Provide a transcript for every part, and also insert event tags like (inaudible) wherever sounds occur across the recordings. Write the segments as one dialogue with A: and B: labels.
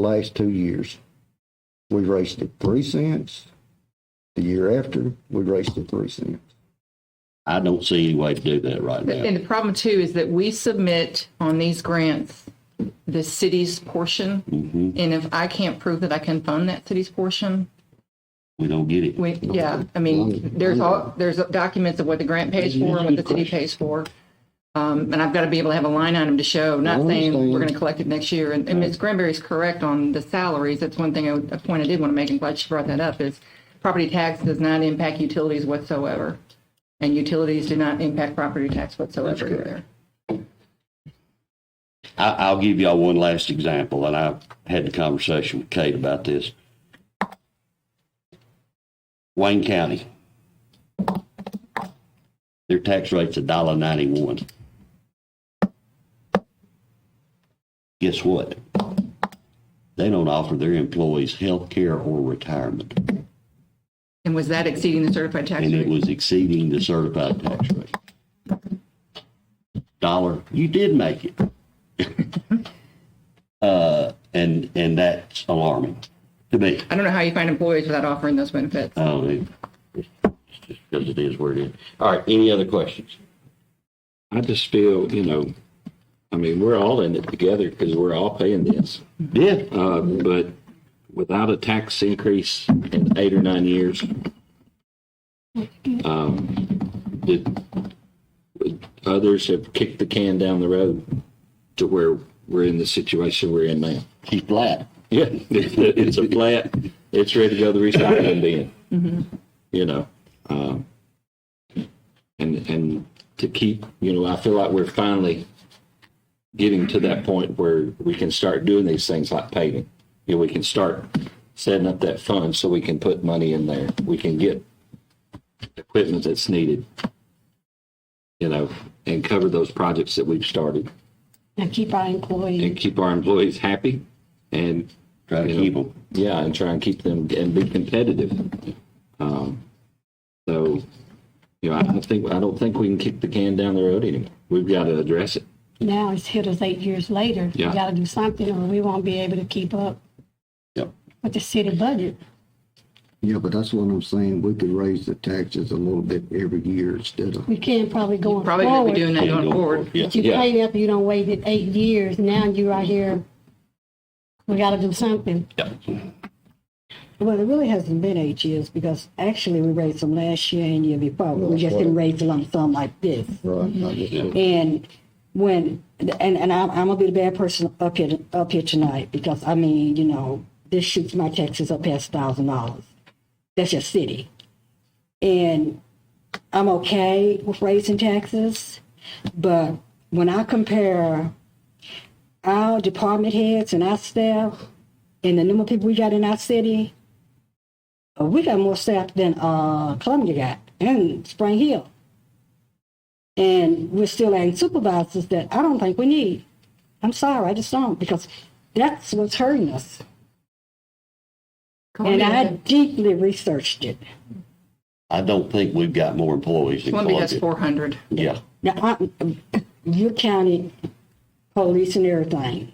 A: the last two years. We raised it three cents. The year after, we raised it three cents.
B: I don't see any way to do that right now.
C: And the problem too is that we submit on these grants the city's portion.
B: Mm-hmm.
C: And if I can't prove that I can fund that city's portion,
B: We don't get it.
C: we, yeah, I mean, there's all, there's documents of what the grant pays for and what the city pays for. Um, and I've got to be able to have a line item to show, not saying we're going to collect it next year. And, and Ms. Granberry's correct on the salaries. That's one thing, I would- a point I did want to make, and glad she brought that up, is property tax does not impact utilities whatsoever. And utilities do not impact property tax whatsoever either.
B: I, I'll give y'all one last example, and I had the conversation with Kate about this. Wayne County. Their tax rate's a dollar ninety-one. Guess what? They don't offer their employees health care or retirement,
C: And was that exceeding the certified tax
B: and it
C: rate?
B: was exceeding the certified tax rate. Dollar, you did make it. (laughs) Uh, and, and that's alarming to me.
C: I don't know how you find employees without offering those benefits.
B: I don't know. It's just because it is where it is. All right, any other questions?
D: I just feel, you know, I mean, we're all in it together because we're all paying this.
B: Yeah,
D: Uh, but without a tax increase in eight or nine years, um, did, would others have kicked the can down the road to where we're in the situation we're in now.
B: she's flat.
D: Yeah, (laughs) it's a flat. It's ready to go to the recycling bin. You know, um, and and to keep, you know, I feel like we're finally getting to that point where we can start doing these things like paving. You know, we can start setting up that fund so we can put money in there. We can get equipment that's needed. You know, and cover those projects that we've started
E: And keep our employees.
D: and keep our employees happy and
B: Try to
D: you know,
B: keep them.
D: Yeah, and try and keep them and be competitive. Um, so, you know, I don't think I don't think we can kick the can down the road anymore. We've got to address it.
E: Now it's hit us eight years later. We
D: Yeah.
E: gotta do something or we won't be able to keep up
B: Yep.
E: with the city budget.
A: Yeah, but that's what I'm saying. We could raise the taxes a little bit every year instead of,
E: We can probably going
C: Probably gonna be doing
E: forward.
C: that
B: Yeah,
C: going
B: go
C: forward.
B: for it.
E: But you
D: Yeah.
E: paid up, you don't waited eight years. Now you right here. We gotta do something.
F: Well, it really hasn't been eight years because actually we raised them last year and year before. We just didn't raise a lump sum like this.
A: right? I just-
F: And when, and, and I'm, I'm gonna be the bad person up here, up here tonight because I mean, you know, this shoots my taxes up past thousand dollars. That's your city. And I'm okay with raising taxes, but when I compare our department heads and our staff and the number of people we got in our city, uh, we got more staff than uh, Columbia got and Spring Hill. And we're still adding supervisors that I don't think we need. I'm sorry, I just don't, because that's what's hurting us. And I deeply researched it.
B: I don't think we've got more employees than
C: Columbia has
B: Columbia.
C: four hundred.
B: Yeah,
F: Now, I, your county police and everything.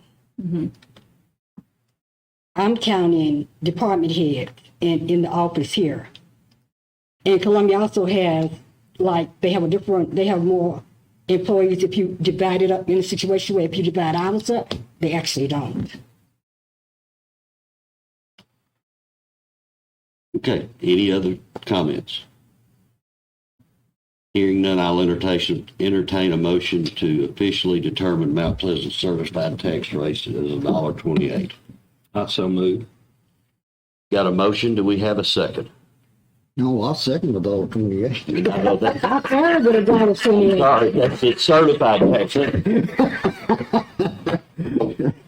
F: I'm counting department heads in, in the office here. And Columbia also has, like, they have a different, they have more employees if you divide it up in a situation where if you divide ours up, they actually don't.
B: okay. Any other comments? Hearing none, I'll entertain, entertain a motion to officially determine Mount Pleasant certified tax rate as a dollar twenty-eight.
D: I so move.
B: Got a motion? Do we have a second?
A: No, I second the dollar twenty-eight.
B: I know that-
F: I heard what a dollar twenty-eight.
B: Sorry, that's it's certified tax.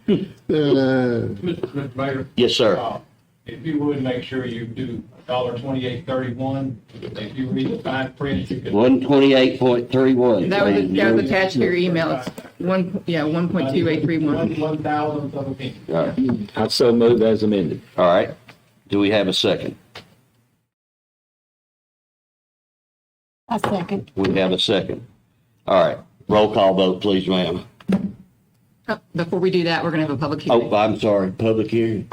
A: Uh,
G: Mr. Mayor,
B: Yes, sir.
G: uh, if you would, make sure you do dollar twenty-eight thirty-one. If you read the fine print, you can.
B: One twenty-eight point three one.
C: That was, that was attached to your email. It's one, yeah, one point two eight three one.
G: One, one thousandth of a penny.
D: I so move as amended.
B: All right. Do we have a second?
E: I second.
B: We have a second. All right. Roll call vote, please, ma'am.
C: Uh, Before we do that, we're going to have a public hearing.
B: Oh, I'm sorry, public hearing?